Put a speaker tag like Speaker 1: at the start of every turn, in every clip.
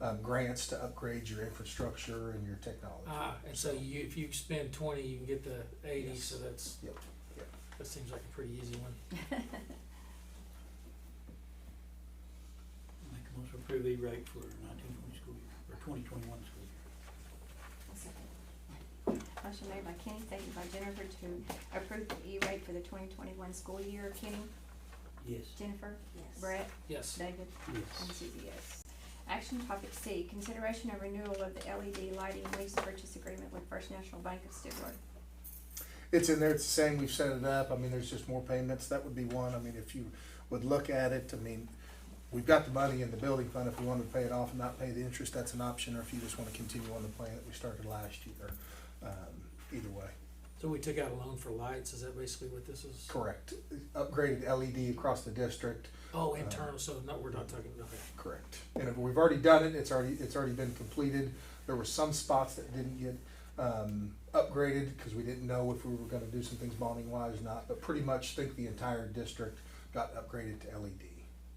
Speaker 1: um, grants to upgrade your infrastructure and your technology.
Speaker 2: Ah, and so you, if you spend twenty, you can get the eighty,
Speaker 1: Yes.
Speaker 2: so that's,
Speaker 1: Yep, yep.
Speaker 2: that seems like a pretty easy one.
Speaker 3: Make a motion to approve the rate for nineteen twenty school year, or twenty twenty-one school year.
Speaker 4: Motion made by Kenny, seconded by Jennifer to approve the E-rate for the twenty twenty-one school year. Kenny,
Speaker 3: Yes.
Speaker 4: Jennifer,
Speaker 5: Yes.
Speaker 4: Brett,
Speaker 2: Yes,
Speaker 4: David, and
Speaker 3: Yes.
Speaker 4: Susie, yes. Action topic C, consideration of renewal of the LED lighting lease purchase agreement with First National Bank of Stuart.
Speaker 1: It's in there, it's saying we've set it up, I mean, there's just more payments, that would be one, I mean, if you would look at it, I mean, we've got the money in the building fund, if we wanted to pay it off and not pay the interest, that's an option, or if you just wanna continue on the plan that we started last year, um, either way.
Speaker 2: so we took out a loan for lights, is that basically what this is?
Speaker 1: Correct, upgraded LED across the district,
Speaker 2: Oh, internal, so no, we're not talking, okay.
Speaker 1: correct. And if we've already done it, it's already, it's already been completed, there were some spots that didn't get, um, upgraded, cause we didn't know if we were gonna do some things bonding wise or not, but pretty much think the entire district got upgraded to LED,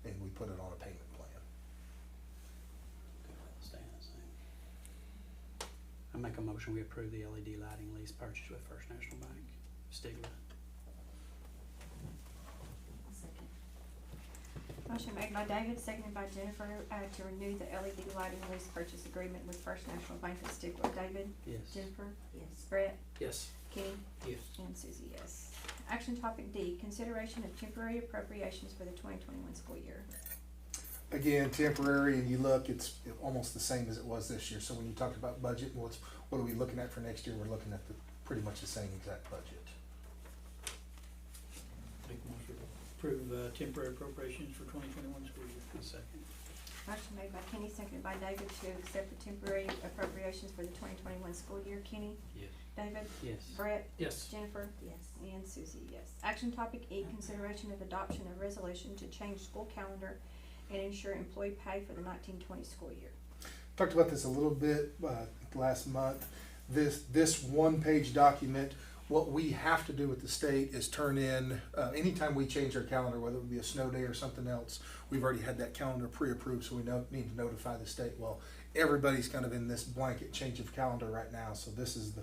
Speaker 1: and we put it on a payment plan.
Speaker 3: Staying the same. I make a motion, we approve the LED lighting lease purchase with First National Bank, Stigler.
Speaker 5: Second.
Speaker 4: Motion made by David, seconded by Jennifer, uh, to renew the LED lighting lease purchase agreement with First National Bank of Stuart. David,
Speaker 3: Yes.
Speaker 4: Jennifer,
Speaker 5: Yes.
Speaker 4: Brett,
Speaker 2: Yes,
Speaker 4: Kenny,
Speaker 3: Yes.
Speaker 4: And Susie, yes. Action topic D, consideration of temporary appropriations for the twenty twenty-one school year.
Speaker 1: Again, temporary, and you look, it's almost the same as it was this year, so when you talk about budget, what's, what are we looking at for next year, we're looking at the, pretty much the same exact budget.
Speaker 3: Make a motion to approve uh, temporary appropriations for twenty twenty-one school year. I'll second.
Speaker 4: Motion made by Kenny, seconded by David to accept the temporary appropriations for the twenty twenty-one school year. Kenny,
Speaker 3: Yes.
Speaker 4: David,
Speaker 3: Yes.
Speaker 4: Brett,
Speaker 2: yes,
Speaker 4: Jennifer,
Speaker 5: Yes.
Speaker 4: and Susie, yes. Action topic E, consideration of adoption of resolution to change school calendar and ensure employee pay for the nineteen twenty school year.
Speaker 1: talked about this a little bit uh, last month. This this one page document. What we have to do with the state is turn in uh, anytime we change our calendar, whether it be a snow day or something else. We've already had that calendar pre-approved, so we know, need to notify the state. Well, everybody's kind of in this blanket change of calendar right now, so this is the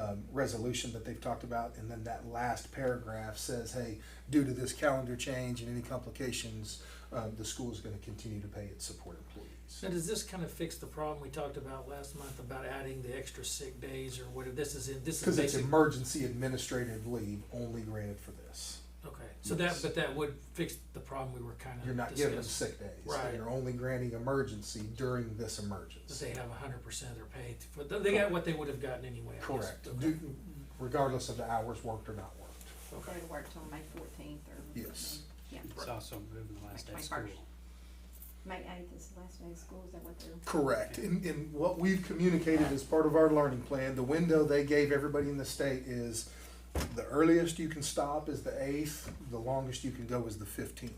Speaker 1: um, resolution that they've talked about. And then that last paragraph says, "Hey, due to this calendar change and any complications, um, the school is going to continue to pay its support employees."
Speaker 2: and does this kind of fix the problem we talked about last month about adding the extra sick days or whatever, this is in, this is
Speaker 1: Because it's
Speaker 2: basic,
Speaker 1: emergency administrative leave only granted for this.
Speaker 2: okay, so that,
Speaker 1: Yes.
Speaker 2: but that would fix the problem we were kind
Speaker 1: You're
Speaker 2: of
Speaker 1: not giving them
Speaker 2: discussing.
Speaker 1: sick days.
Speaker 2: Uh-huh. Right.
Speaker 1: You're only granting emergency during this
Speaker 2: That
Speaker 1: emergency.
Speaker 2: they have a hundred percent of their pay, but they got what they would have gotten anyway, I guess.
Speaker 1: Correct.
Speaker 2: Okay.
Speaker 1: Do- Regardless of the hours worked or not worked.
Speaker 2: Okay.
Speaker 4: Go to work till May fourteenth or.
Speaker 1: Yes.
Speaker 4: Yeah,
Speaker 3: It's also moving the last day of
Speaker 4: Like
Speaker 3: school.
Speaker 4: 21st. May eighth is the last day of school, is that what they're?
Speaker 1: Correct. And, and what we've communicated as part of our learning plan, the window they gave everybody in the state is the earliest you can stop is the eighth, the longest you can go is the fifteenth.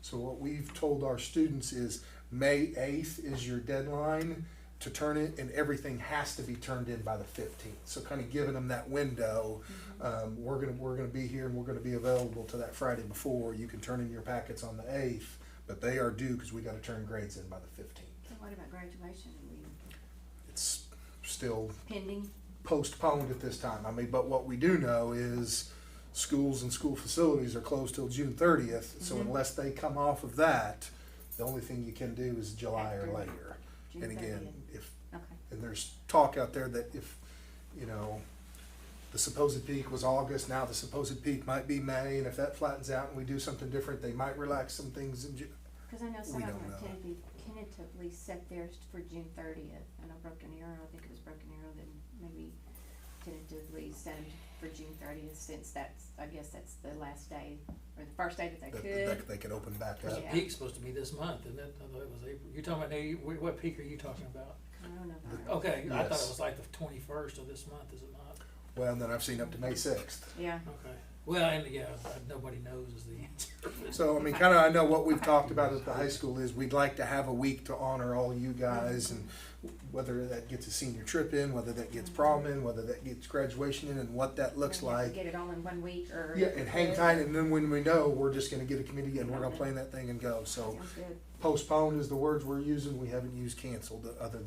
Speaker 1: So what we've told our students is May eighth is your deadline to turn it and everything has to be turned in by the fifteenth. So kind of giving them that window, um, we're gonna, we're gonna be here and we're gonna be available to that Friday before. You can turn in your packets on the eighth, but they are due because we gotta turn grades in by the fifteenth
Speaker 4: So what about graduation? Are we
Speaker 1: it's still
Speaker 4: pending?
Speaker 1: postponed at this time. I mean, but what we do know is schools and school facilities are closed till June thirtieth, so
Speaker 4: Mhm.
Speaker 1: unless they come off of that, the only thing you can do is July or
Speaker 4: After
Speaker 1: later.
Speaker 4: June
Speaker 1: And again,
Speaker 4: 30th?
Speaker 1: if,
Speaker 4: Okay,
Speaker 1: and there's talk out there that if, you know, the supposed peak was August, now the supposed peak might be May, and if that flattens out and we do something different, they might relax some things in Ju-
Speaker 4: cause I know some
Speaker 1: We
Speaker 4: of
Speaker 1: don't
Speaker 4: them
Speaker 1: know.
Speaker 4: tentatively, tentatively set theirs for June thirtieth. I know Broken Arrow, I think it was Broken Arrow that maybe tentatively set 'em for June thirtieth since that's, I guess that's the last day or the first day that they
Speaker 1: that,
Speaker 4: could.
Speaker 1: that they could open back
Speaker 2: There's
Speaker 1: up.
Speaker 2: a
Speaker 4: Yeah.
Speaker 2: peak supposed to be this month, isn't it? I thought it was April. You're talking about, now, you- wh- what peak are you talking about?
Speaker 4: Coronavirus.
Speaker 1: Oh.
Speaker 2: Okay, I thought it
Speaker 1: Yes.
Speaker 2: was like the twenty-first of this month, is it not?
Speaker 1: Well, and then I've seen up to May sixth.
Speaker 4: Yeah,
Speaker 2: Okay, Well, and yeah, nobody knows is the answer.
Speaker 1: So, I mean, kinda, I know what we've talked about at the high school is we'd like to have a week to honor all you guys and whether that gets a senior trip in, whether that gets prom in, whether that gets graduation in, and what that looks
Speaker 4: And if we
Speaker 1: like.
Speaker 4: Get it all in one week or.
Speaker 1: Yeah, and hang tight, and then when we know, we're just gonna get a committee and we're gonna plan that thing and go, so
Speaker 4: Sounds good.
Speaker 1: postponed is the words we're using, we haven't used canceled, other than.